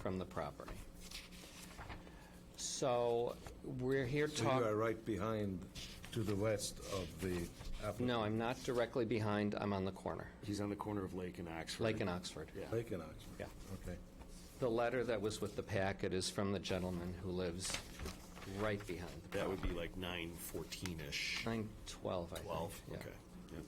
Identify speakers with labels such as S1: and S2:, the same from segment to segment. S1: from the property. So we're here
S2: So you are
S1: talking,
S2: right behind to the west of the applicant.
S1: no, I'm not directly behind, I'm on the corner,
S3: He's on the corner of Lake and Oxford.
S1: Lake and Oxford.
S3: Yeah.
S2: Lake and Oxford.
S1: Yeah.
S2: Okay.
S1: The letter that was with the packet is from the gentleman who lives right behind the
S3: That would be like nine fourteen-ish,
S1: 912, I think.
S3: twelve,
S1: yeah.
S3: okay. Yep.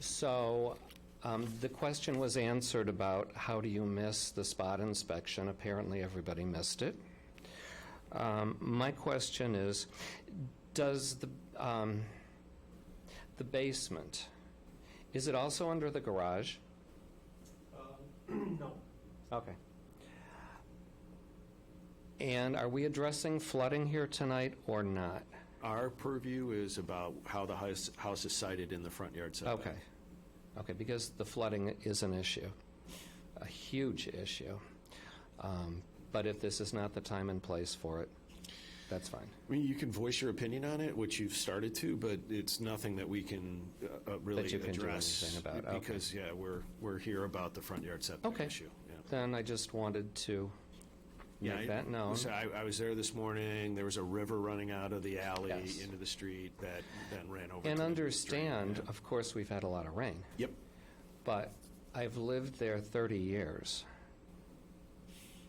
S1: So um, the question was answered about how do you miss the spot inspection? Apparently, everybody missed it. Um, My question is, does the, um, the basement, is it also under the garage? No. Okay. And are we addressing flooding here tonight or not?
S3: Our purview is about how the house, house is sited in the front yard setback.
S1: Okay. Okay, because the flooding is an issue, a huge issue. Um, But if this is not the time and place for it, that's fine.
S3: I mean, you can voice your opinion on it, which you've started to, but it's nothing that we can uh, uh, really address.
S1: you can do anything about, okay.
S3: Because, yeah, we're, we're here about the front yard setback
S1: Okay.
S3: issue. yeah.
S1: Then I just wanted to
S3: Yeah,
S1: make
S3: I-
S1: that known.
S3: listen, I, I was there this morning, there was a river running out of the alley
S1: Yes.
S3: into the street that then ran over. to the
S1: And
S3: drain,
S1: understand,
S3: yeah.
S1: of course, we've had a lot of rain,
S3: Yep,
S1: but I've lived there 30 years.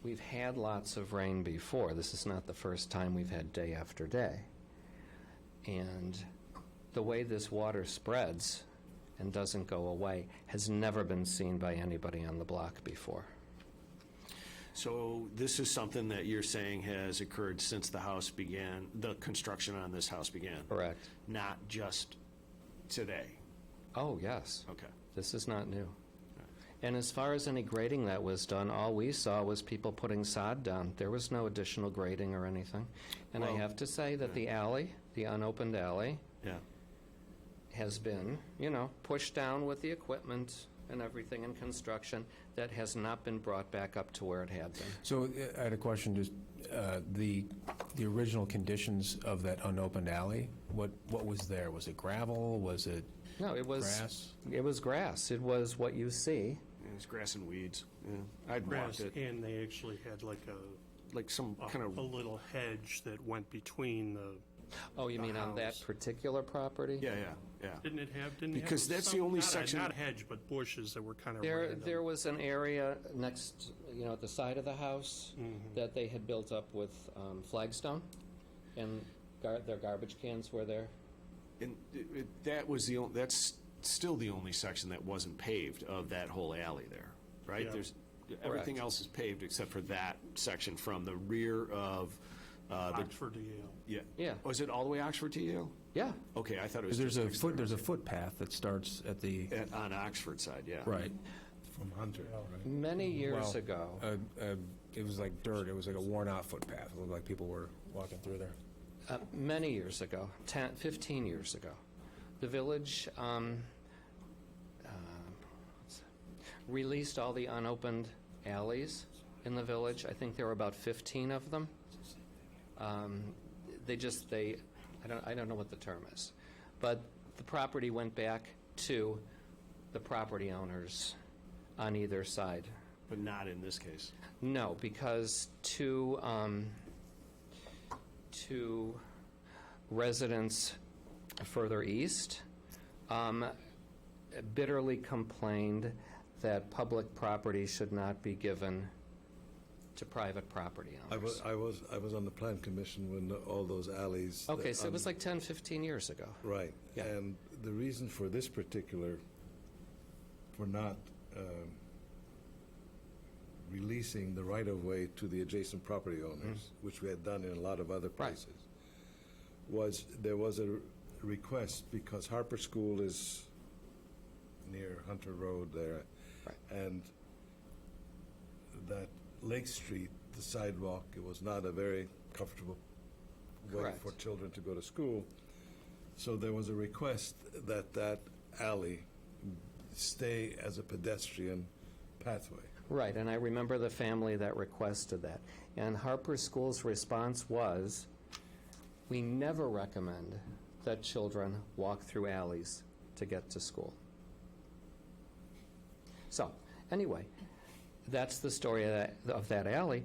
S1: We've had lots of rain before. This is not the first time we've had day after day. And the way this water spreads and doesn't go away has never been seen by anybody on the block before.
S3: so this is something that you're saying has occurred since the house began, the construction on this house began?
S1: Correct.
S3: Not just today?
S1: Oh, yes.
S3: Okay,
S1: This is not new. And as far as any grading that was done, all we saw was people putting sod down. There was no additional grading or anything. And I
S3: Well-
S1: have to say that the alley, the unopened alley,
S3: yeah.
S1: has been, you know, pushed down with the equipment and everything in construction that has not been brought back up to where it had been.
S4: So uh, I had a question, just uh, the, the original conditions of that unopened alley, what, what was there? Was it gravel? Was it
S1: No, it was.
S4: grass?
S1: It was grass. It was what you see.
S3: It's grass and weeds, yeah. I'd walked
S5: grass,
S3: it,
S5: and they actually had like a,
S3: like some
S5: a-
S3: kind
S5: a
S3: of,
S5: little hedge that went between the,
S1: Oh, you mean on that
S5: house.
S1: particular property?
S3: yeah, yeah, yeah.
S5: didn't it have, didn't it have?
S3: Because that's the
S5: some-
S3: only
S5: not a-
S3: section-
S5: Not a hedge, but bushes that were kind of
S1: There,
S5: random.
S1: there was an area next, you know, at the side of the house that they had built up with um, flagstone, and gar- their garbage cans were there.
S3: And it- it- that was the, on- that's still the only section that wasn't paved of that whole alley there, right?
S5: Yeah.
S3: There's, everything else is paved except for that section from the rear of, uh, the,
S5: Oxford to Yale.
S3: yeah.
S1: Ah. Yeah.
S3: Was it all the way Oxford to Yale?
S1: Yeah,
S3: Okay, I thought it was.
S4: Because there's a
S3: just
S4: foot, there's a footpath that starts at the,
S3: at- On Oxford side, yeah.
S4: right.
S2: From Hunter, right?
S1: many years
S4: Well,
S1: ago.
S4: uh, uh, It was like dirt, it was like a worn-out footpath, it looked like people were walking through there.
S1: uh, many years ago, 10, 15 years ago, the village um, uh, released all the unopened alleys in the village. I think there were about 15 of them. Um, they just they, I don't I don't know what the term is, but the property went back to the property owners on either side.
S3: But not in this case.
S1: No, because two, um, two residents further east um, bitterly complained that public property should not be given to private property
S2: I
S1: owners.
S2: was, I was, I was on the plan commission when all those alleys. that
S1: Okay, so it was
S2: un-
S1: like 10, 15 years ago.
S2: Right.
S1: Yeah.
S2: And the reason for this particular, for not um, releasing the right-of-way to the adjacent property owners,
S1: Mm-hmm.
S2: which we had done in a lot of other places, was there was a request because Harper School is near Hunter Road there.
S1: Right.
S2: And that Lake Street, the sidewalk, it was not a very comfortable way
S1: Correct.
S2: for children to go to school. So there was a request that that alley stay as a pedestrian pathway.
S1: Right, and I remember the family that requested that. And Harper School's response was, we never recommend that children walk through alleys to get to school. So, anyway, That's the story of that, of that alley.